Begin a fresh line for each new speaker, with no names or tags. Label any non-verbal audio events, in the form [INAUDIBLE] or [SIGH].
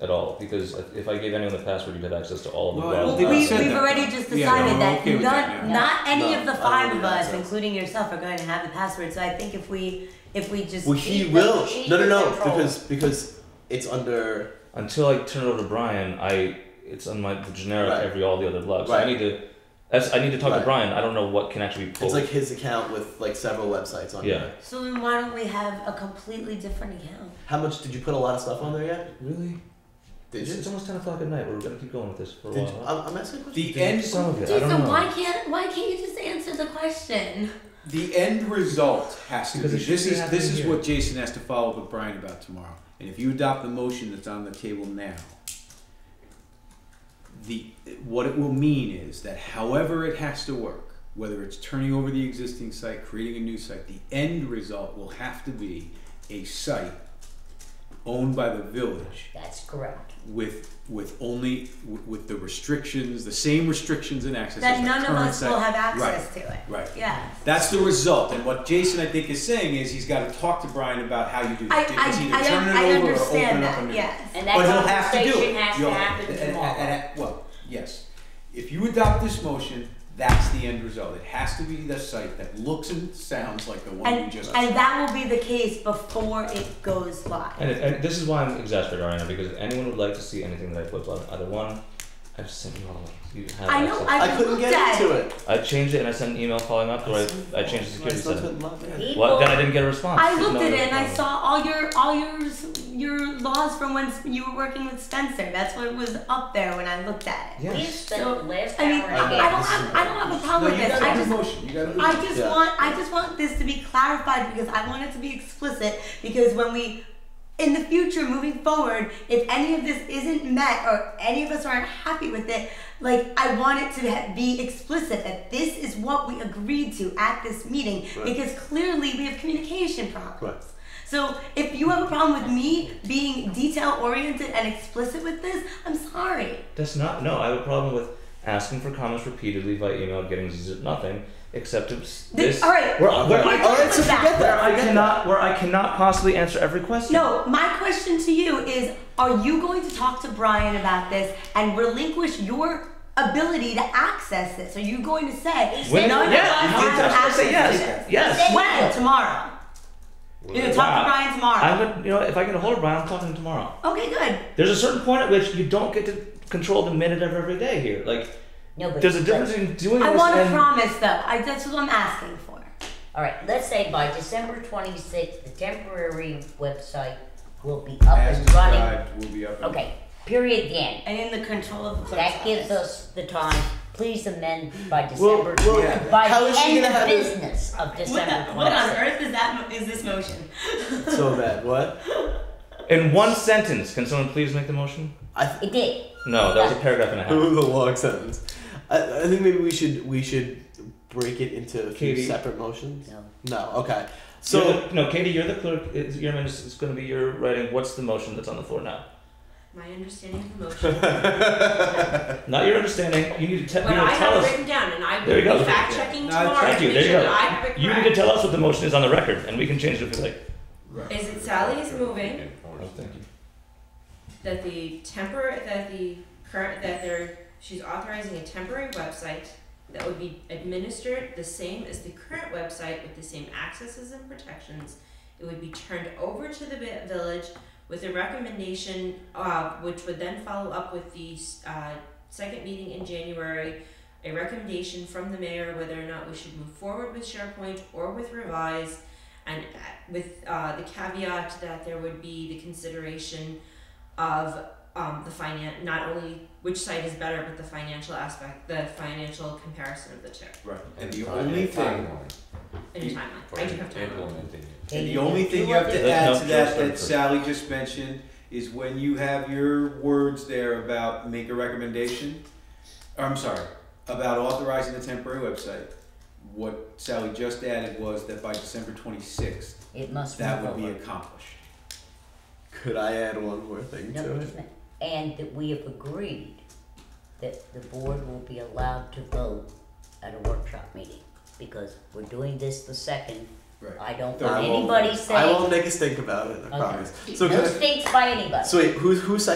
at all because if I gave anyone the password, you'd have access to all of the
Well,
browser.
they
We,
said
we've
that.
already just
Yeah,
decided
I'm
that
okay with that
none,
now.
not any
No,
of the
I don't
five
need
of us,
access.
including yourself, are going to have the password. So I think if we, if we just,
Well, he
He-
will.
he
No, no, no.
controls.
Because because it's under.
Until I turn it over to Brian, I it's on my the generic
Right.
every all the other blogs. So I
Right.
need to that's, I need to talk
Right.
to Brian. I don't know what can actually be pulled.
It's like his account with like several websites on
Yeah.
there.
so then why don't we have a completely different account?
How much did you put a lot of stuff on there yet?
really?
Did
It's
you?
almost ten o'clock at night. We're gonna keep going with this for a
Did you
while.
I'm, I'm asking a question.
The
Did you-
end
Some of it. I
Jason,
don't know.
why can't why can't you just answer the question?
The end result has to
Because
be
it should
this
be
is
happening
this is
here.
what Jason has to follow up with Brian about tomorrow. And if you adopt the motion that's on the table now, the what it will mean is that however it has to work, whether it's turning over the existing site, creating a new site, the end result will have to be a site owned by the village
That's correct.
with with only with the restrictions, the same restrictions and access as
That
the
none of
current
us
site.
will have
Right.
access to it.
Right.
Yeah.
That's the result. And what Jason, I think, is saying is he's got to talk to Brian about how you do
I
that. It's
I,
either
I,
turn
un-
it
I
over or open
understand
up a
that.
new.
Yes.
And that
But he'll have to do
conversation
it.
has to
You'll-
happen
and- and-
tomorrow.
and- well, yes. If you adopt this motion, that's the end result. It has to be the site that looks and sounds like the one we
And
just.
and that will be the case before it goes live.
And, and this is why I'm exasperated right now because if anyone would like to see anything that I put on either one, I've sent you all the links. You have
I know.
access.
I've
I couldn't
looked
get
at
into it.
I changed it and I sent an email following up, or I, I changed the security
Myself
setting.
couldn't log in.
People,
Well, then I didn't get a response.
I
There's
looked
no
at
other
it and I
problem.
saw all your all your your laws from when you were working with Spencer. That's what was up there when I looked at it.
Yeah.
we spent the last
I mean,
hour
I,
in
I don't have I don't have a
No,
problem
you
with this.
gotta
I
do
just
motion. You gotta do
I
motion.
just
Yeah.
want I just want this to be clarified because I want it to be explicit because when we in the future moving forward, if any of this isn't met or any of us aren't happy with it, like I want it to ha- be explicit that this is what we agreed to at this meeting
Right.
because clearly we have communication problems.
Right.
So if you have a problem with me being detail oriented and explicit with this, I'm sorry.
That's not. No, I have a problem with asking for comments repeatedly by email, getting z- nothing except this.
Th- all right.
Where,
All
where
We're
I,
done
right,
with
so forget
where
that.
that.
I
forget that.
cannot. Where I cannot possibly answer every question.
No, my question to you is are you going to talk to Brian about this and relinquish your ability to access this? Are you going to say
When?
none
yeah.
of us
you
have
did. I
access
say
to
yes.
this?
Yes.
When? Tomorrow. You're gonna talk
Wow.
to Brian tomorrow.
I would. You know, if I get a hold of Brian, I'm talking to him tomorrow.
okay, good.
There's a certain point at which you don't get to control the minute of every day here. Like,
No, but
there's a
but-
difference in doing
I
this
want a
and
promise though. I, that's what I'm asking for.
All right, let's say by December 26th, the temporary website will be up
As
and running.
described, we'll be up. and-
Okay, period, the end.
And in the control of the clerk's
That gives
office.
us the time, please amend by
Well,
December,
well,
Yeah.
by
how is
the
she
end
gonna
of
have it
business of
what,
December
the- what on
26th.
earth is that? Is this motion?
so bad? What?
in one sentence. Can someone please make the motion? [LAUGHS]
I th-
It did.
No, that was a paragraph and a
it
half.
was a long sentence. I, I think maybe we should we should break it into a few
Katie.
separate motions.
No.
No. Okay.
So
So
no, Katie, you're the clerk. It's, your minutes, it's going to be your writing. What's the motion that's on the floor now?
My understanding of
[LAUGHS]
the motion,
Not your understanding. You need to, te-
but
you need
I
to tell
have
us.
written down, and I
There you
will
go.
be fact checking
No,
tomorrow
Thank
to
you.
make
There you
sure
go.
that I've been
You need to
correct.
tell us what the motion is on the record, and we can change it if we like.
Is it Sally's moving,
Oh, thank you.
that the temporary, that the current, that they're, she's authorizing a temporary website that would be administered the same as the current website with the same accesses and protections. It would be turned over to the vi- village with a recommendation, uh, which would then follow up with the, uh, second meeting in January, a recommendation from the mayor whether or not we should move forward with SharePoint or with Revise, and uh, with uh, the caveat that there would be the consideration of um, the finan not only which site is better, but the financial aspect, the financial comparison of the two
Right. And the only thing.
in
You-
timeline. I do have time.
And the only thing you have
Let-
to add
no,
to
Joe's
that
done
that
first.
Sally just mentioned is when you have your words there about make a recommendation, or I'm sorry, about authorizing the temporary website, what Sally just added was that by December twenty-sixth,
It must.
that
move
would be
over.
accomplished.
could I add one more thing
No,
to it?
wait a minute. And that we have agreed that the board will be allowed to vote at a workshop meeting, because we're doing this the second.
Right.
I don't
I
want
won't-
anybody
I
saying,
won't make a stink about it. I
Okay.
promise. So,
no
can I-
stakes by anybody.
so wait, who who seconded